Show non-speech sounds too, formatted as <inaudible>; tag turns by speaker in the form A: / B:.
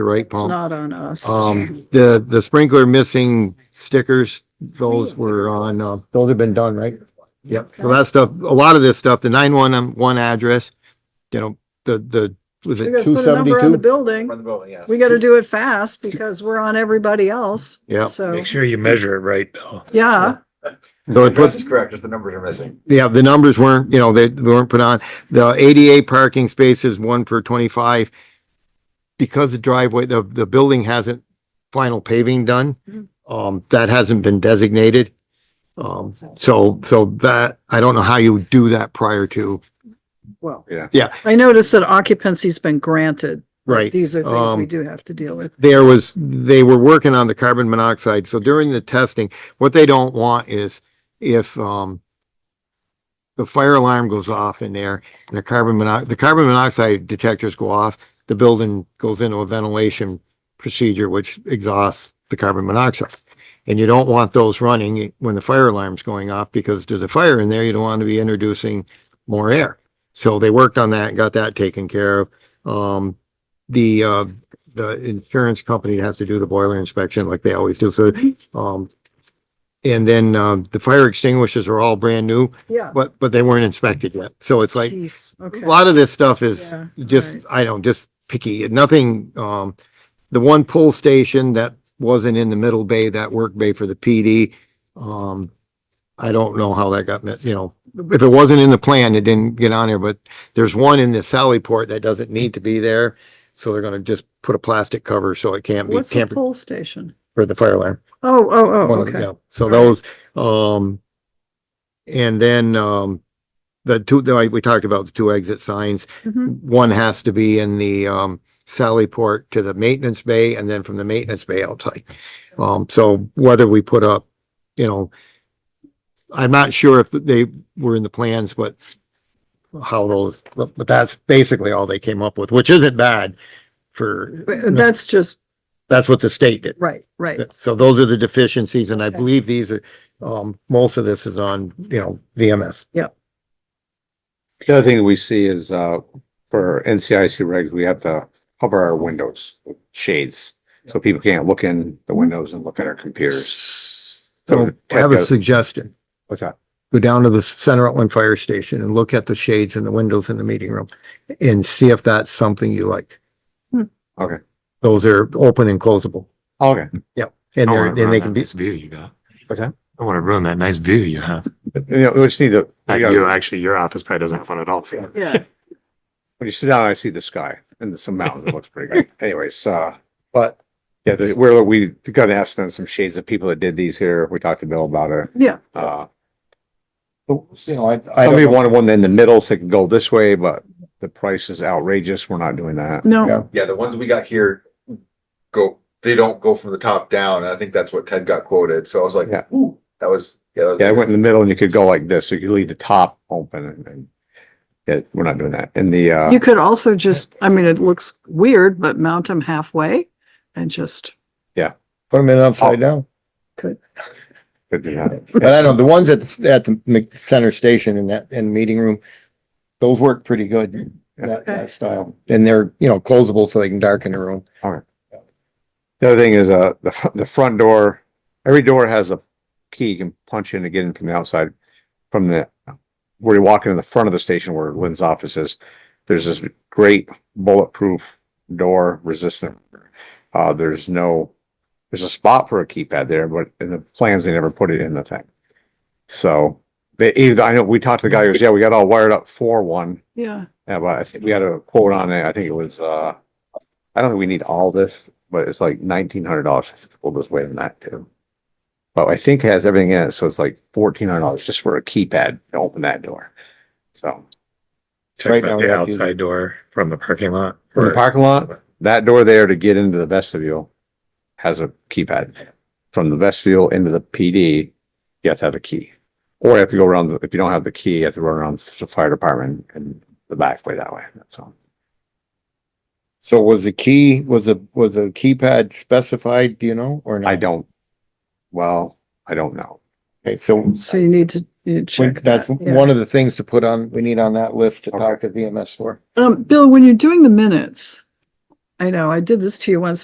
A: right,
B: It's
A: Paul?
B: not on us.
A: Um, the, the sprinkler missing stickers, those were on, uh, those have been done, right? Yep, so that stuff, a lot of this stuff, the nine one one address, you know, the, the, was
B: We
A: it
B: gotta
A: two
B: put a number on the
A: seventy-two?
B: building.
C: From the building, yes.
B: We gotta do it fast because we're on everybody else.
A: Yeah.
B: So,
D: Make sure you measure it right. though.
B: yeah,
A: So it
C: Address
A: puts,
C: is correct, just the numbers are missing.
A: yeah, the numbers weren't, you know, they they weren't put on. The ADA parking spaces, one per twenty-five. Because the driveway, the, the building hasn't final paving done,
B: Mhm.
A: um, that hasn't been designated. Um, so, so that, I don't know how you do that prior to,
B: well.
C: Yeah.
A: Yeah.
B: I noticed that occupancy's been granted.
A: right?
B: These are things we
A: Um,
B: do have to deal with.
A: There was, they were working on the carbon monoxide, so during the testing, what they don't want is if, um, the fire alarm goes off in there and the carbon monox, the carbon monoxide detectors go off, the building goes into a ventilation procedure which exhausts the carbon monoxide. And you don't want those running when the fire alarm's going off because there's a fire in there, you don't want to be introducing more air. So they worked on that, and got that taken care of. Um, the, uh, the insurance company has to do the boiler inspection like they always do, so, um, and then, uh, the fire extinguishers are all brand new,
B: Yeah.
A: but, but they weren't inspected yet. So it's like,
B: Peace.
A: a
B: Okay.
A: lot of this stuff is
B: Yeah,
A: just,
B: right.
A: I don't, just picky, nothing, um, the one pull station that wasn't in the middle bay, that work bay for the PD, um, I don't know how that got, met, you know, if it wasn't in the plan, it didn't get on there, but there's one in the Sallyport that doesn't need to be there. So they're gonna just put a plastic cover so it can't be
B: What's the
A: tampered
B: pole station?
A: for the fire alarm.
B: Oh, oh,
A: One
B: oh,
A: of the-
B: okay.
A: yeah. So those, um, and then, um, the two, the- we talked about the two exit signs.
B: Mhm.
A: One has to be in the, um, Sally Port to the maintenance bay and then from the maintenance bay outside. Um, so whether we put up, you know, I'm not sure if they were in the plans, but how those, but, but that's basically all they came up with, which isn't bad for,
B: But That's just,
A: that's what the state did.
B: right, right.
A: So those are the deficiencies, and I
B: Okay.
A: believe these are, um, most of this is on, you know, VMS.
E: The other thing that we see is, uh, for NCIC regs, we have to cover our windows with shades. So people can't look in the windows and look at our computers.
A: So I have a suggestion.
E: What's that?
A: Go down to the Center Outland Fire Station and look at the shades and the windows in the meeting room and see if that's something you like.
B: Hmm.
E: Okay.
A: Those are open and closable,
E: Oh, Okay.
F: I
A: and they're,
F: wanna
A: and they
F: ruin
A: can
F: that
A: be,
F: Nice view you got.
E: What's that?
F: I want to ruin that nice view you have.
E: You know, we just need to,
F: Not
E: we gotta-
F: you, actually, your office probably doesn't have one at all.
A: <laughs>
B: Yeah.
E: when you sit down, I see the sky and there's some mountains. It looks pretty <laughs> good. Anyways, uh,
A: but
E: yeah, the- we're, we got to ask them some shades of people that did these here. We talked to Bill about it.
B: Yeah.
E: Uh,
A: you know, I, I
E: somebody
A: don't,
E: wanted one in the middle so it could go this way, but the price is outrageous. We're not doing that.
A: Yeah.
B: No,
C: Yeah, the ones we got here go, they don't go from the top down. And I think that's what Ted got quoted. So I was like,
E: Yeah.
C: ooh, that was, yeah. that was-
E: Yeah, I went in the middle and you could go like this, so you could leave the top open and, and yeah, we're not doing that. And the, uh,
B: you could also just, I mean, it looks weird, but mount them halfway and just,
A: put them in upside <laughs> down.
E: could do that.
A: But I don't, the ones at, the- at the Mc- center station in that, in the meeting room, those work pretty good, that,
B: Okay.
A: that style. And they're, you know, closable so they can darken the room.
E: the other thing is, uh, the, fr- the front door, every door has a key you can punch in to get in from the outside. From the, where you walk into the front of the station where Lynn's office is, there's this great bulletproof door resistant. Uh, there's no, there's a spot for a keypad there, but in the plans, they never put it in the thing. So they, either, I know, we talked to the guy who goes, yeah, we got all wired up for one.
B: yeah.
E: Yeah, but I think we had a quote on it. I think it was, uh, I don't think we need all this, but it's like nineteen hundred dollars. We'll just wait on that too. But I think it has everything in it, so it's like fourteen hundred dollars just for a keypad to open that door. So
D: Talk
A: Right
D: about
A: now, we
D: the
A: have to use it.
D: outside door from the parking lot.
E: from the
D: or-
E: parking lot, that door there to get into the vestibule has a keypad. From the vestibule into the PD, you have to have a key. Or you have to go around, the- if you don't have the key, you have to run around the fire department and the back way that way. That's all.
A: So was the key, was a, was a keypad specified, do you know, or not?
E: I don't, well, I don't know.
A: Okay, so
B: So you need to, you need to
A: we-
B: check.
A: that's
B: that, yeah.
A: one of the things to put on, we need on that list to
E: Okay.
A: talk to VMS for.
B: Um, Bill, when you're doing the minutes, I know, I did this to you once